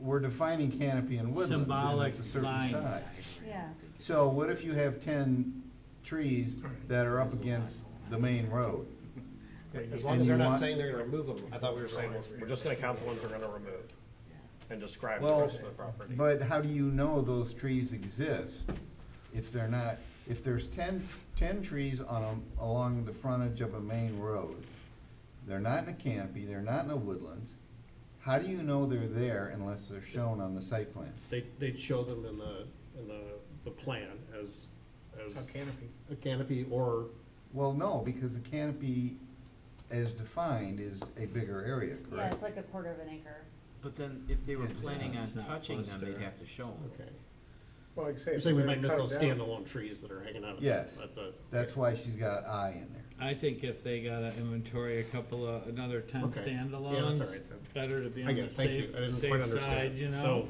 we're defining canopy in woodlands, and symbolic it's a certain lines. size. Yeah. So what if you have ten trees that are up against the main road? As long And as you they're not want- saying they're gonna remove them, I thought we were saying, we're just gonna count the ones we're gonna remove and describe the Well, rest of the property. but how do you know those trees exist if they're not, if there's ten, ten trees on, a- along the frontage of a main road? They're not in a canopy, they're not in a woodland, how do you know they're there unless they're shown on the site plan? They, they'd show them in the, in the, the plan as, as. A canopy. A canopy or, Well, no, because the canopy as defined is a bigger area, Yeah, correct? it's like a quarter of an acre. But then if they were Yeah, just planning not- on it's not touching them, they'd cluster. have to show them. okay. Well, like I say. You're if saying we we're might gonna miss cut those it down- standalone trees that are hanging out at the, Yes. at the. That's why she's got I in there. I think if they gotta inventory a couple of, another ten Okay. Yeah, that's all standalones, right then. better to be I on get the it, thank you, safe, I didn't quite safe side, understand. you know? So,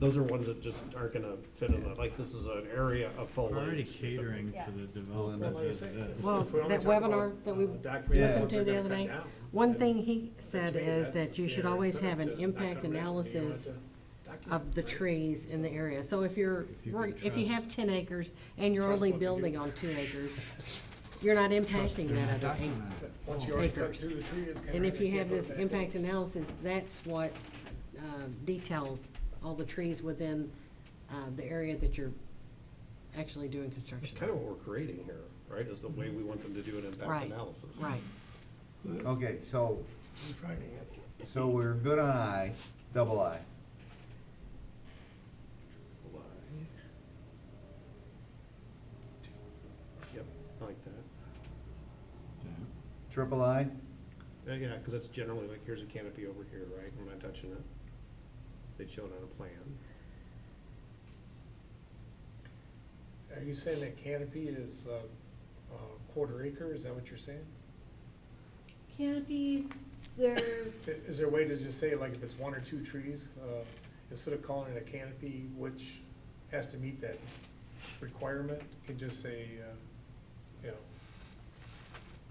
those are ones that just aren't gonna fit in, the- like, this is an area of foliage. We're already catering to Yeah. the Well, development Well, like I as say, it if- is. Well, if we only that talk about, webinar that we uh, documenting listened what to they're the gonna other cut day, down, One then thing he said to me, is that's that you should their always incentive have to an not impact come in. You want to analysis document of the it, right? trees in the area. So if you're, If you can if you trust- have ten acres and you're only building on two acres, you're not impacting that other acre. So Once you already cut acres. through the tree, it's gonna. And if really you have go this back impact down. analysis, that's what uh, details all the trees within uh, the area that you're actually doing It's construction. kind of what we're creating here, right, is the way we want them to do an impact Right, analysis. Right. Okay, so, Refining it. so we're good on I, double I. Yep, I like that. Triple I, Uh, Yeah, because that's generally like, here's a canopy over here, right, we're not touching it. They'd show it on a plan. Are you saying that canopy is uh, a quarter acre, is that what you're saying? Canopy, there's, I- Is there a way to just say, like, if it's one or two trees, uh, instead of calling it a canopy, which has to meet that requirement, you can just say, uh, you know,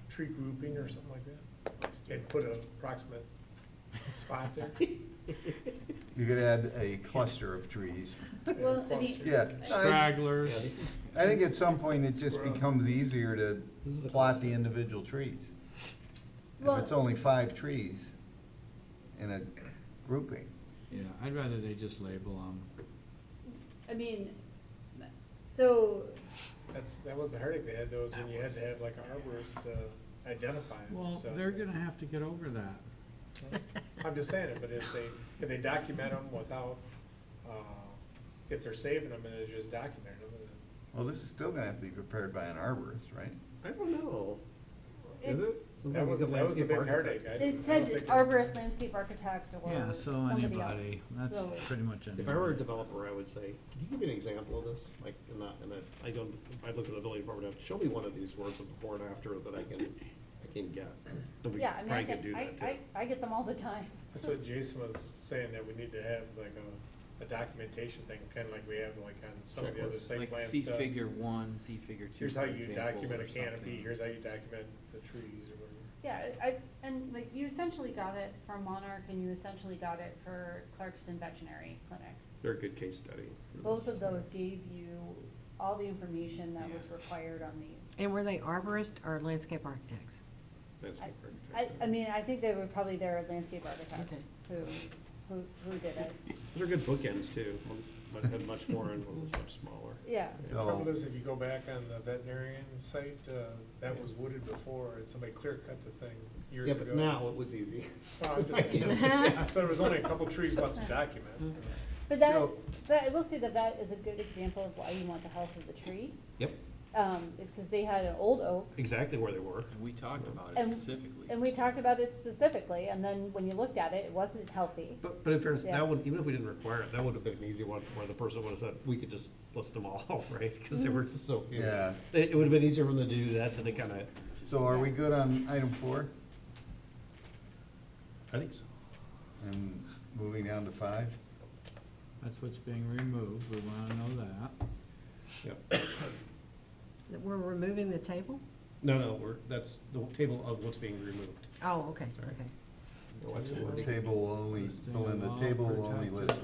tree grouping or something like that? And put an approximate spot there? you could add a cluster of trees. Well, I mean- Yeah, I, Yeah, Stragglers. this is, I think at some point it just becomes easier This is to a plot cluster. the individual trees. If it's well, only five trees in a grouping. Yeah, I'd rather they just label them. I mean, so, That's, that was the heartache they had though, is when you had to have like a arborist uh, identify them, Well, so. they're gonna have to get over that. I'm just saying it, but if they, if they document them without, uh, if they're saving them and they're just documenting them, then. Well, this is still gonna have to be prepared by an arborist, right? I don't know, is it's, it? That Sometimes was, it's a that was a landscape big architect. heartache. I- I it don't said think- arborist, landscape architect, Yeah, or so somebody else, anybody, so. that's pretty much If I were a anybody. developer, I would say, can you give me an example of this? Like, in that, in that, I don't, I'd look at the building department, show me one of these words of before and after that I can, I can get. And we Yeah, I mean, I probably could do get, I, that too. I, I get them all the time. That's what Jason was saying, that we need to have like a, a documentation thing, kinda like we have like on some of the other Checklist. site Like plan see stuff. figure one, see figure two, Here's for how you example, document a or canopy, something. here's how you document the trees or whatever. Yeah, I, I- and like, you essentially got it from Monarch, and you essentially got it for Clarkston Veterinary Clinic. They're a good case study. Both of those gave you all the information that was required on these. And were they arborist or landscape architects? Landscape I, architects. I mean, I think they were probably their landscape architects Okay. who, who, who did it. Those are good bookends too. One's, one had much more and one was much smaller. Yeah, The Oh. So- problem is, if you go back on the veterinarian site, uh, that was wooded before, and somebody clear cut the thing years Yeah, ago. but now it was easy. Well, I'm just saying. So there was only a couple trees left to document, so. but that, So- but I will say that that is a good example of why you want the health of the tree, Yep, um, is because they had an old oak, exactly where they were. And we talked about it And- specifically. and we talked about it specifically, and then when you looked at it, it wasn't healthy. But, but in fairness, Yeah. that one, even if we didn't require it, that would have been an easy one where the person would have said, we could just list them all out, right? Because they were just so few. Yeah. It, it would have been easier for them to do that than to kind of. So are we good on item four I think so. and moving down to five? That's what's being removed, we wanna know that. Yep. That we're removing the table? No, no, we're, that's the table of what's being removed. Oh, okay, Sorry. okay. What's Table will only, Belinda, table will only list